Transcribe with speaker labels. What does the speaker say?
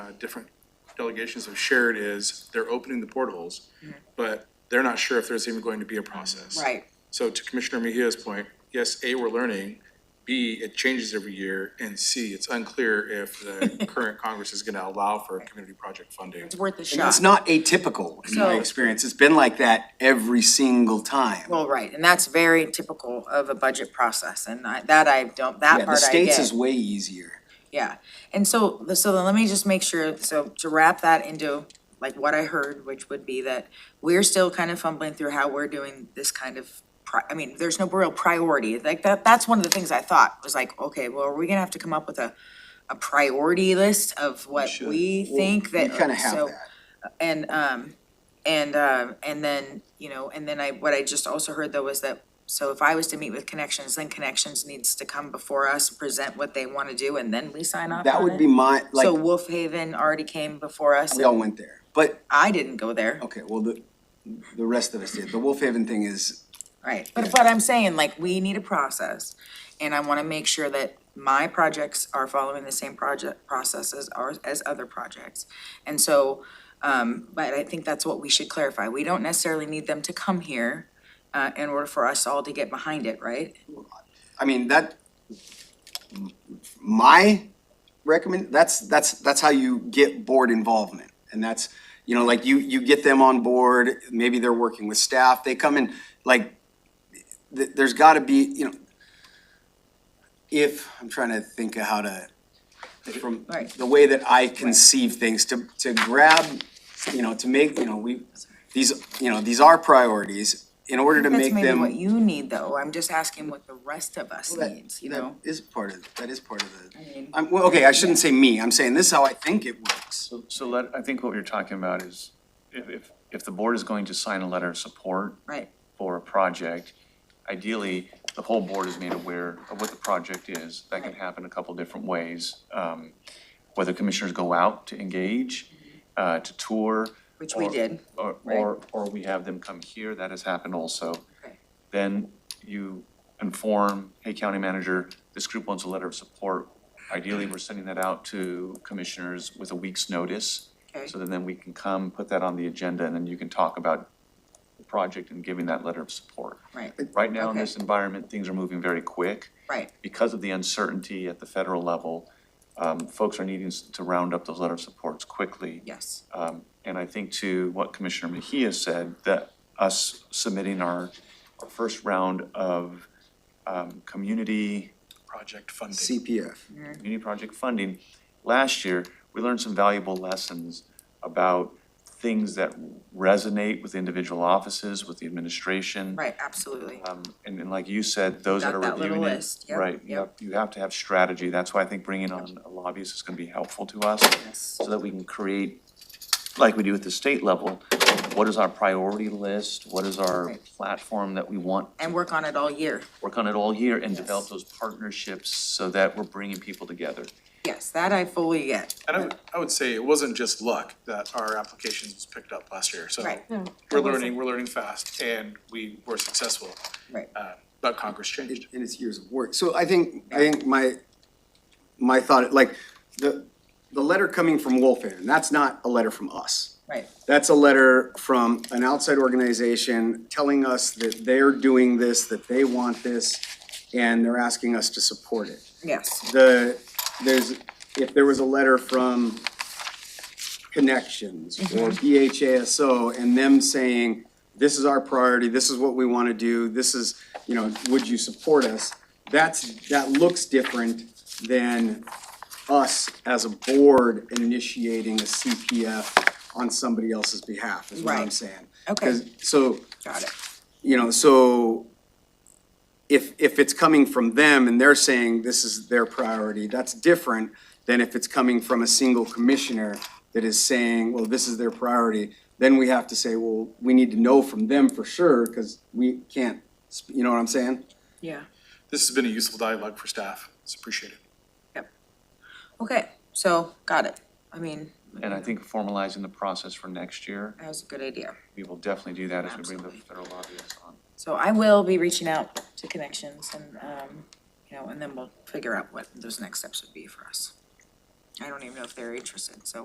Speaker 1: uh, different delegations have shared is they're opening the portholes, but they're not sure if there's even going to be a process.
Speaker 2: Mm-hmm. Right.
Speaker 1: So to Commissioner Mejia's point, yes, A, we're learning, B, it changes every year, and C, it's unclear if the current Congress is gonna allow for community project funding.
Speaker 2: It's worth a
Speaker 3: And
Speaker 2: shot.
Speaker 3: It's not atypical in my
Speaker 2: So-
Speaker 3: experience. It's been like that every single time.
Speaker 2: Well, right, and that's very typical of a budget process, and I, that I don't, that
Speaker 3: Yeah, the
Speaker 2: part I
Speaker 3: states is
Speaker 2: get,
Speaker 3: way easier.
Speaker 2: yeah. And so, so then let me just make sure, so to wrap that into, like, what I heard, which would be that we're still kind of fumbling through how we're doing this kind of pri- I mean, there's no real priority, like, that, that's one of the things I thought, was like, okay, well, are we gonna have to come up with a, a priority list of what we think that,
Speaker 3: We kind of have
Speaker 2: so-
Speaker 3: that.
Speaker 2: And, um, and, um, and then, you know, and then I, what I just also heard though was that, so if I was to meet with Connections, then Connections needs to come before us, present what they wanna do, and then we sign off
Speaker 3: That
Speaker 2: on
Speaker 3: would
Speaker 2: it?
Speaker 3: be my,
Speaker 2: uh, So
Speaker 3: like,
Speaker 2: Wolf Haven already came before us,
Speaker 3: we all
Speaker 2: and
Speaker 3: went there. But,
Speaker 2: I didn't go there,
Speaker 3: okay, well, the, the rest of us did. The Wolf Haven thing is,
Speaker 2: right? But, but I'm saying, like, we need a process, and I wanna make sure that my projects are following the same project, process as ours, as other projects. And so, um, but I think that's what we should clarify, we don't necessarily need them to come here, uh, in order for us all to get behind it, right?
Speaker 3: I mean, that, my recommend, that's, that's, that's how you get board involvement. And that's, you know, like you, you get them on board, maybe they're working with staff, they come in, like, th- there's gotta be, you know, if, I'm trying to think of how to, from
Speaker 2: Right.
Speaker 3: the way that I conceive things, to, to grab, you know, to make, you know, we, these, you know, these are priorities, in order to
Speaker 2: That's
Speaker 3: make
Speaker 2: maybe
Speaker 3: them.
Speaker 2: what you need, though, I'm just asking what the rest of us
Speaker 3: That-
Speaker 2: needs, you
Speaker 3: that
Speaker 2: know?
Speaker 3: Is part of, that is part of the,
Speaker 2: mean-
Speaker 3: I'm, well, okay, I shouldn't say me, I'm saying this is how I think it works.
Speaker 4: So, so let, I think what you're talking about is if, if, if the board is going to sign a letter of support
Speaker 2: Right,
Speaker 4: for a project, ideally, the whole board is made aware of what the project is. That can
Speaker 2: Right.
Speaker 4: happen a couple different ways. Um, whether commissioners go out to engage, uh, to tour.
Speaker 2: which we
Speaker 4: or-
Speaker 2: did.
Speaker 4: Or,
Speaker 2: right?
Speaker 4: or, or we have them come here, that has happened also.
Speaker 2: Okay.
Speaker 4: Then you inform, hey, county manager, this group wants a letter of support. Ideally, we're sending that out to commissioners with a week's notice.
Speaker 2: Okay.
Speaker 4: So that then we can come, put that on the agenda, and then you can talk about the project and giving that letter of support.
Speaker 2: Right,
Speaker 4: Right now, in
Speaker 2: Okay.
Speaker 4: this environment, things are moving very quick
Speaker 2: right,
Speaker 4: because of the uncertainty at the federal level. Um, folks are needing s- to round up those letter of supports quickly.
Speaker 2: yes,
Speaker 4: Um, and I think to what Commissioner Mejia said, that us submitting our, our first round of, um, community,
Speaker 1: Project funding.
Speaker 3: CPF.
Speaker 4: community project funding, last year, we learned some valuable lessons about things that resonate with individual offices, with the administration.
Speaker 2: right, absolutely.
Speaker 3: Uh,
Speaker 4: Um, and then like you said, those that
Speaker 2: Got
Speaker 4: are
Speaker 2: that little
Speaker 4: reviewing it,
Speaker 2: list. Yep,
Speaker 4: right, you have,
Speaker 2: yep.
Speaker 4: you have to have strategy, that's why I think bringing on a lobbyist is gonna be helpful to us.
Speaker 2: Yes.
Speaker 4: So that we can create, like we do at the state level, what is our priority list, what is our
Speaker 2: Right.
Speaker 4: platform that we want?
Speaker 2: And work on it all year.
Speaker 4: Work on it all year and develop those partnerships so that we're bringing people together.
Speaker 2: Yes, that I fully get,
Speaker 1: And I would, I would say it wasn't just luck that our applications was picked up last year, so
Speaker 2: right,
Speaker 1: we're learning, we're learning fast, and we were successful,
Speaker 2: right,
Speaker 1: uh, but Congress changed.
Speaker 3: And and it's years of work. So I think, I think my, my thought, like, the, the letter coming from Wolf Haven, that's not a letter from us.
Speaker 2: right,
Speaker 3: That's a letter from an outside organization telling us that they're doing this, that they want this, and they're asking us to support it.
Speaker 2: yes,
Speaker 3: the, there's, if there was a letter from Connections
Speaker 2: Mm-hmm.
Speaker 3: or BHASO and them saying, this is our priority, this is what we want to do, this is, you know, would you support us? That's, that looks different than us as a board initiating a CPF on somebody else's behalf, is what I'm
Speaker 2: Right.
Speaker 3: saying.
Speaker 2: Okay.
Speaker 3: 'Cause- So
Speaker 2: got it,
Speaker 3: you know, so if, if it's coming from them and they're saying this is their priority, that's different than if it's coming from a single commissioner that is saying, well, this is their priority, then we have to say, well, we need to know from them for sure, because we can't, sp- you know what I'm saying?
Speaker 2: yeah,
Speaker 1: This has been a useful dialogue for staff, it's appreciated.
Speaker 2: okay, so, got it, I mean,
Speaker 4: And I think formalizing the process for next year,
Speaker 2: that was a good idea.
Speaker 4: we will definitely do that as we bring the
Speaker 2: Absolutely.
Speaker 4: federal lobbyists on.
Speaker 2: So I will be reaching out to Connections and, um, you know, and then we'll figure out what those next steps would be for us. I don't even know if they're interested, so